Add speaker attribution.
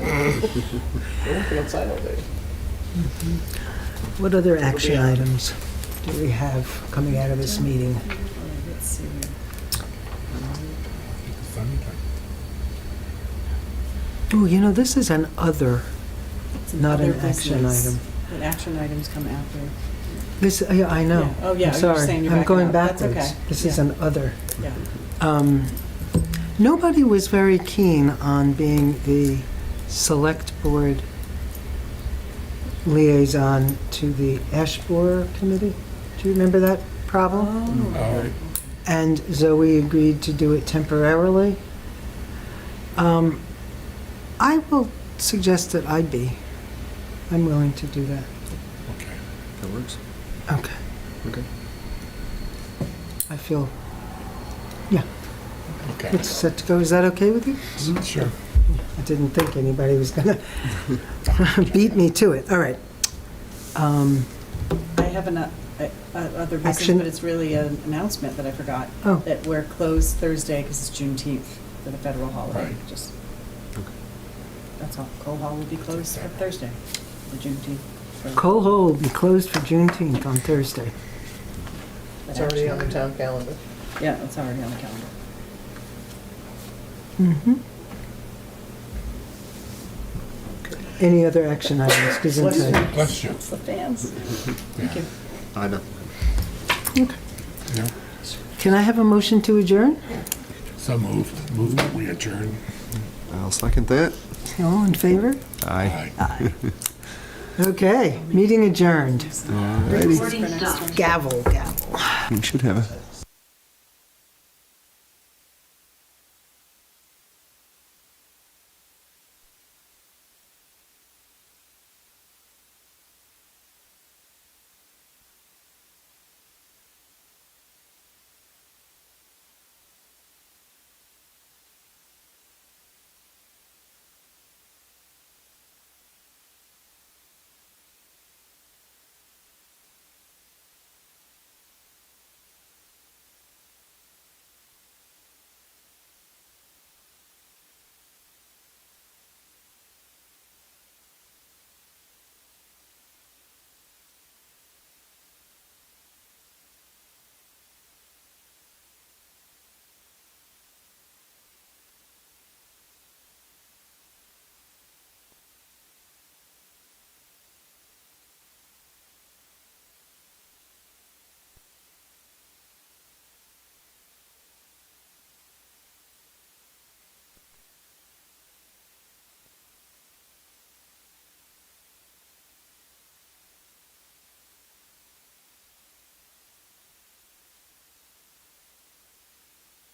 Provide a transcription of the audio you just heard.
Speaker 1: They're working outside all day.
Speaker 2: What other action items do we have coming out of this meeting?
Speaker 3: Let's see.
Speaker 2: Oh, you know, this is an other,
Speaker 3: It's
Speaker 2: Not an
Speaker 3: other
Speaker 2: action
Speaker 3: business.
Speaker 2: item.
Speaker 3: But action items come after.
Speaker 2: this, I I know.
Speaker 3: Yeah. Oh, yeah,
Speaker 2: I'm
Speaker 3: you're
Speaker 2: sorry.
Speaker 3: saying you're
Speaker 2: I'm
Speaker 3: backing
Speaker 2: going
Speaker 3: up. That's
Speaker 2: backwards.
Speaker 3: okay.
Speaker 2: This is
Speaker 3: Yeah.
Speaker 2: an other.
Speaker 3: Yeah.
Speaker 2: Um, Nobody was very keen on being the select board liaison to the Ash Borer Committee. Do you remember that problem?
Speaker 3: Oh.
Speaker 2: and Zoe agreed to do it temporarily. Um, I will suggest that I be. I'm willing to do that.
Speaker 4: That works.
Speaker 2: Okay.
Speaker 4: Okay.
Speaker 2: I feel, yeah,
Speaker 1: Okay. Mm-hmm.
Speaker 2: it's set to go. Is that okay with you?
Speaker 1: Sure.
Speaker 2: I didn't think anybody was going to beat me to it. All right. Um,
Speaker 3: I have an, uh, uh, other business,
Speaker 2: Action.
Speaker 3: but it's really an announcement that I forgot.
Speaker 2: Oh.
Speaker 3: That we're closed Thursday because it's Juneteenth for the federal holiday.
Speaker 1: Right.
Speaker 3: Just, that's all. Coal Hall will be closed for Thursday, the Juneteenth. for
Speaker 2: Cole Hall will be closed for Juneteenth on Thursday.
Speaker 3: that
Speaker 5: It's already on the
Speaker 3: action.
Speaker 5: town calendar.
Speaker 3: Yeah, it's already on the calendar.
Speaker 2: Mm-hmm. Any other action items? 'Cause
Speaker 5: Bless you.
Speaker 2: inside-
Speaker 1: Bless you.
Speaker 3: It's the fans. Thank you.
Speaker 4: I know.
Speaker 1: Yeah.
Speaker 2: Can I have a motion to adjourn?
Speaker 1: So moved. Moved that we adjourn.
Speaker 4: I'll second that.
Speaker 2: All in favor?
Speaker 4: Aye.
Speaker 1: Aye.
Speaker 2: Okay, meeting adjourned.
Speaker 4: Alrighty.
Speaker 3: For next time.
Speaker 2: Gavel, gavel.
Speaker 4: We should have a